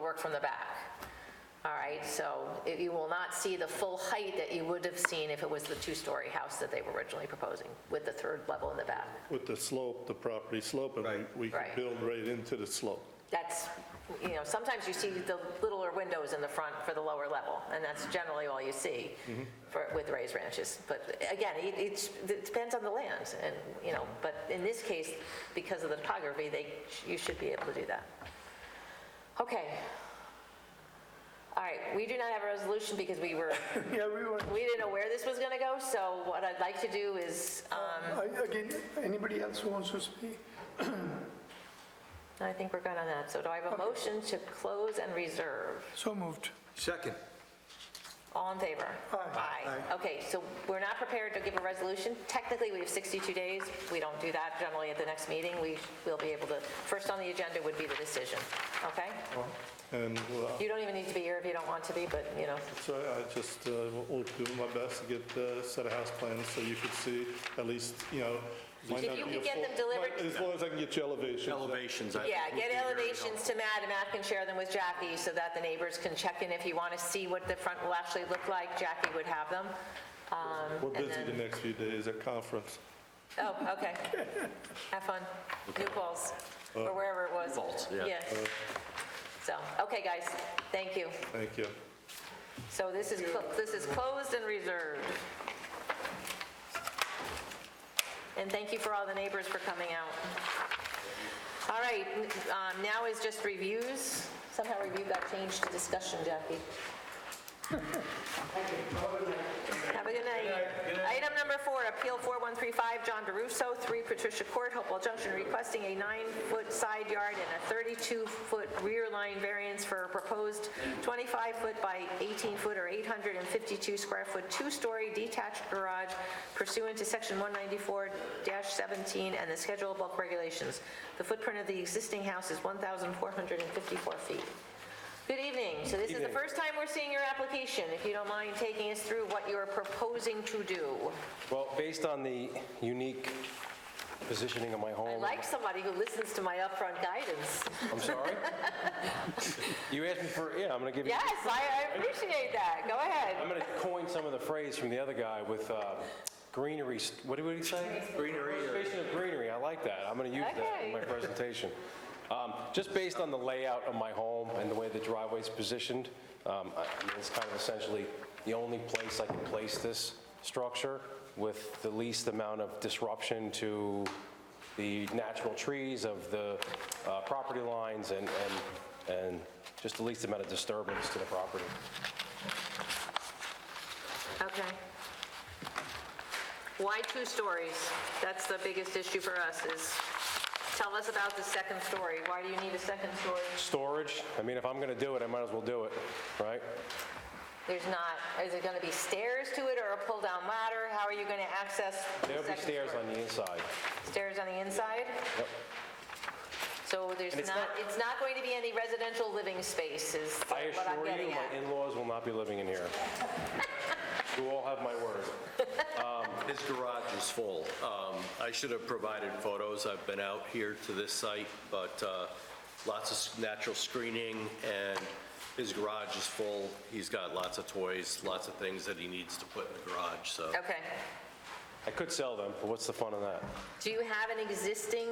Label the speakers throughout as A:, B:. A: work from the back. All right, so it- you will not see the full height that you would have seen if it was the two-story house that they were originally proposing with the third level in the back.
B: with the slope, the property slope, and we- we could
A: Right.
B: build right into the slope.
A: That's, you know, sometimes you see the littler windows in the front for the lower level, and that's generally all you see for, with raised ranches. But again, it, it's- it depends on the land, and, you know, but in this case, because of the topography, they, you should be able to do that. Okay. All right, we do not have a resolution because we were,
C: Yeah, we were,
A: we didn't know where this was gonna go, so what I'd like to do is, um,
C: I- again, anybody else who wants to speak?
A: I think we're good on that. So do I have a motion to close and reserve?
C: So moved.
D: Second.
A: All in favor?
C: Aye.
A: Aye. Okay, so we're not prepared to give a resolution. Technically, we have 62 days. We don't do that generally at the next meeting. We will be able to, first on the agenda would be the decision, okay?
B: And uh,
A: You don't even need to be here if you don't want to be, but, you know,
B: so I just uh, will do my best to get the set of house plans so you could see at least, you know. might
A: If
B: not
A: you
B: be
A: could
B: a
A: get
B: full-
A: them delivered-
B: might- As long as I can get you elevations.
D: Elevations. I
A: yeah,
D: think, would
A: get
D: be very
A: elevations to
D: helpful.
A: Matt, and Matt can share them with Jackie so that the neighbors can check in. If you want to see what the front will actually look like, Jackie would have them. Um,
B: We're
A: and
B: busy the
A: then-
B: next few days at conference.
A: Oh, okay. Have fun. New Falls, or wherever it was.
D: Falls, Uh, yeah. Uh,
A: So, okay, guys, thank you.
B: Thank you.
A: So this is, clo- this is closed and reserved. And thank you for all the neighbors for coming out. All right, um, now is just reviews. Somehow review got changed to discussion, Jackie. Have a good night. Item number four, Appeal 4135, John DeRusso, 3 Patricia Court, Hopewell Junction, requesting a nine-foot side yard and a 32-foot rear line variance for a proposed 25-foot by 18-foot or 852-square-foot two-story detached garage pursuant to Section 194-17 and the Schedule of Bulk Regulations. The footprint of the existing house is 1,454 feet. Good evening. So this is the first time we're seeing your application. If you don't mind taking us through what you are proposing to do.
E: Well, based on the unique positioning of my
A: I
E: home,
A: like somebody who listens to my upfront guidance.
E: I'm sorry. You asked me for, yeah, I'm going to give you,
A: Yes, I I appreciate that. Go
E: I'm
A: ahead.
E: going to coin some of the phrase from the other guy with uh, greenery, st- what did he say? Greenery. Preservation of greenery, I like that. I'm going to use that in my
A: Okay.
E: presentation. Um, Just based on the layout of my home and the way the driveway's positioned, um, I I mean, it's kind of essentially the only place I can place this structure with the least amount of disruption to the natural trees of the uh, property lines and, and, and just the least amount of disturbance to the property.
A: Okay. Why two stories? That's the biggest issue for us is, tell us about the second story. Why do you need a second story?
E: Storage, I mean, if I'm going to do it, I might as well do it, right?
A: There's not, is it going to be stairs to it or a pull-down ladder? How are you going to access the
E: There'll be
A: second
E: stairs
A: story?
E: on the inside.
A: Stairs on the inside?
E: Yep.
A: So there's
E: And it's
A: not,
E: not-
A: it's not going to be any residential living spaces, is
E: I
A: what I'm
E: assure you,
A: getting
E: my
A: at.
E: in-laws will not be living in here. You all have my word.
D: His garage is full. Um, I should have provided photos. I've been out here to this site, but uh, lots of s- natural screening, and his garage is full. He's got lots of toys, lots of things that he needs to put in the garage, so.
A: Okay.
E: I could sell them, but what's the fun in that?
A: Do you have an existing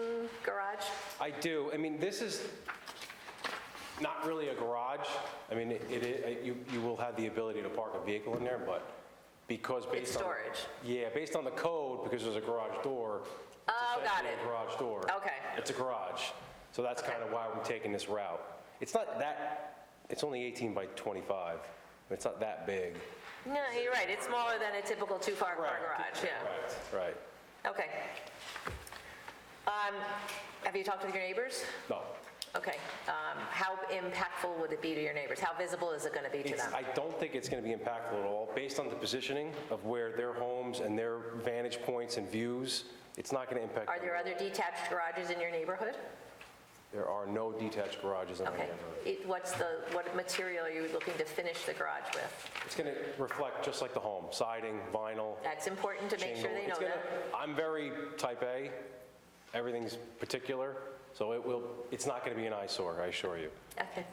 A: garage?
E: I do. I mean, this is not really a garage. I mean, it, it- you, you will have the ability to park a vehicle in there, but because
A: It's
E: based on...
A: storage.
E: Yeah, based on the code, because there's a garage door. it's
A: Oh, got
E: essentially
A: it.
E: a garage door.
A: Okay.
E: It's a garage. So that's kind of why we're taking this route. It's not that, it's only 18 by 25. It's not that big.
A: No, you're right, it's smaller than a typical two-car car garage, yeah.
E: Right, right.
A: Okay. Um, Have you talked with your neighbors?
E: No.
A: Okay. Um, How impactful would it be to your neighbors? How visible is it going to be to
E: It's-
A: them?
E: I don't think it's going to be impactful at all, based on the positioning of where their homes and their vantage points and views, it's not going to impact.
A: Are there
E: them.
A: other detached garages in your neighborhood?
E: There are no detached garages in my
A: Okay.
E: neighborhood.
A: It- What's the, what material are you looking to finish the garage with?
E: It's going to reflect just like the home, siding, vinyl,
A: That's important to make sure
E: shingle.
A: they know
E: It's gonna-
A: that.
E: I'm very type A, everything's particular, so it will, it's not going to be an eyesore, I assure you.
A: Okay.